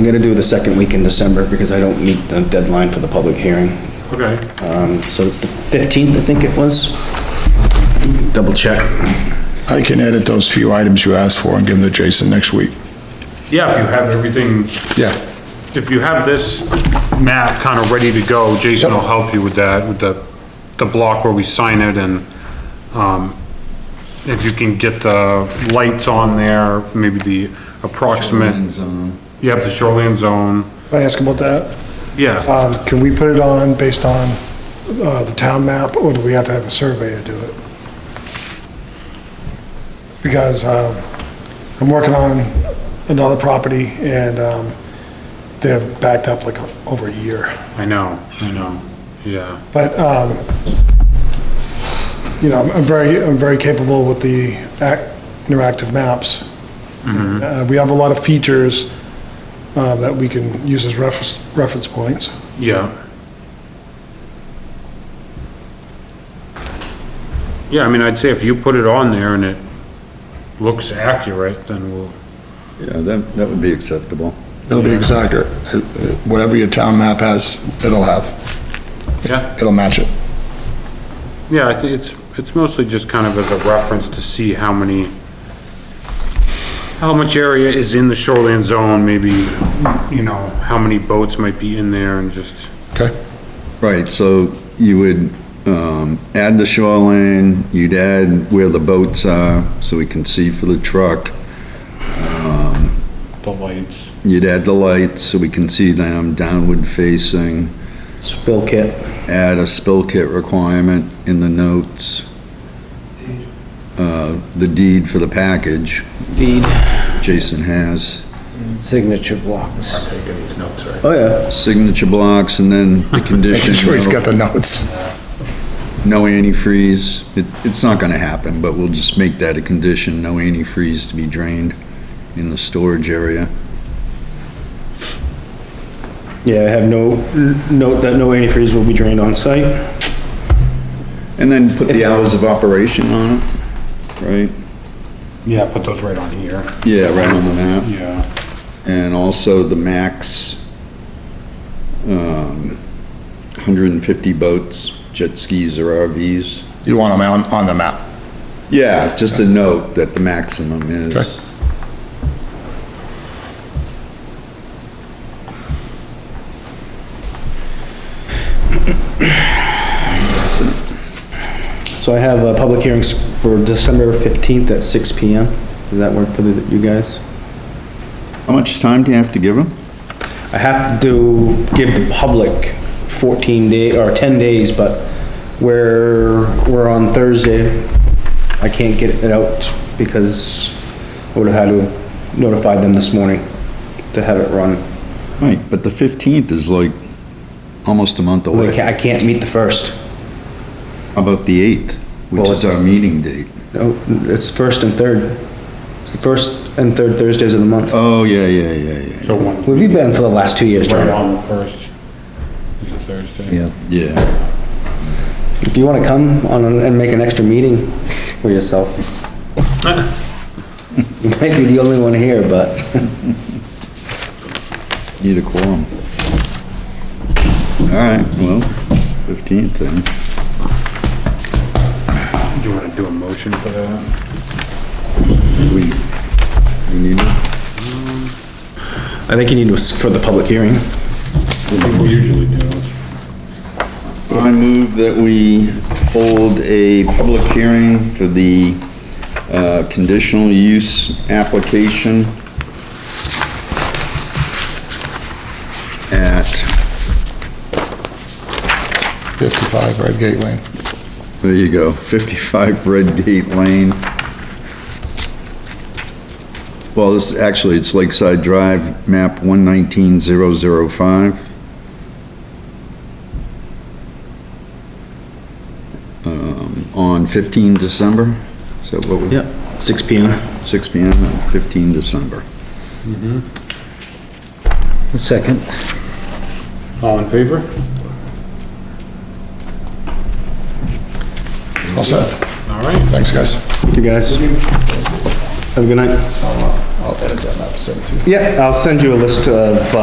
I'm gonna do the second week in December because I don't meet the deadline for the public hearing. Okay. Um, so it's the fifteenth, I think it was. Double check. I can edit those few items you asked for and give them to Jason next week. Yeah, if you have everything, Yeah, if you have this map kind of ready to go, Jason will help you with that, with the, the block where we sign it and, um, if you can get the lights on there, maybe the approximate, yep, the shoreline zone, Can I ask about that? yeah. Um, can we put it on based on, uh, the town map, or do we have to have a survey to do it? Because, um, I'm working on another property, and, um, they're backed up like over a year. I know, I know, yeah, But, um, you know, I'm I'm very, I'm very capable with the ac- interactive maps. Uh, we have a lot of features, uh, that we can use as reference, reference points. yeah. Yeah, I mean, I'd say if you put it on there and it looks accurate, then we'll, Yeah, that, that would be acceptable. it'll be exact. or, uh, Whatever your town map has, it'll have, yeah. it'll match it. Yeah, I think it's, it's mostly just kind of as a reference to see how many, how much area is in the shoreline zone, maybe, you know, how many boats might be in there and just, Okay? Right, so you would, um, add the shoreline, you'd add where the boats are, so we can see for the truck. the lights. You'd add the lights, so we can see them downward facing. Spill kit. add a spill kit requirement in the notes. Uh, the deed for the package Deed. Jason has, Signature blocks. I'm taking these notes, right? Oh, yeah. signature blocks and then the Making condition. sure he's got the notes. No antifreeze. It, it's not gonna happen, but we'll just make that a condition, no antifreeze to be drained in the storage area. Yeah, I have no, note that no antifreeze will be drained on site. And then put the hours of operation on it, right? Yeah, put those right on here. Yeah, right on the map. Yeah. And also the max, um, 150 boats, jet skis or RVs. You want them on, on the map. Yeah, just a note that the maximum Okay. is. So I have a public hearings for December fifteenth at six P M. Does that work for the- you guys? How much time do you have to give them? I have to give the public fourteen day, or ten days, but we're, we're on Thursday. I can't get it out because I would've had to have notified them this morning to have it run. Right, but the 15th is like almost a month Like, away. I can't meet the first. How about the 8th, which Well, is it's- our meeting date? No, it's first and third. It's the first and third Thursdays of the month. Oh, yeah, yeah, yeah, yeah. So one, We've been for the last two years, right John. on the first, is it Thursday? Yeah, Do you wanna come on an- and make an extra meeting for yourself? You might be the only one here, but. need a quorum. All right, well, 15th then. Do you wanna do a motion for that? We, we need it? I think you need to, s- for the public hearing. We usually do. I move that we hold a public hearing for the uh, conditional use application at, 55 Red Gate Lane. there you go, 55 Red Gate Lane. Well, this, actually, it's Lakeside Drive, map 119005. Um, On 15 December, is that what we? Yep. Six P M. Six P M on 15 December. Second. All in favor? All set. All right. Thanks, guys. You guys. Have a good night. I'll I'll edit that map, send it to you. Yeah, I'll send you a list of, uh,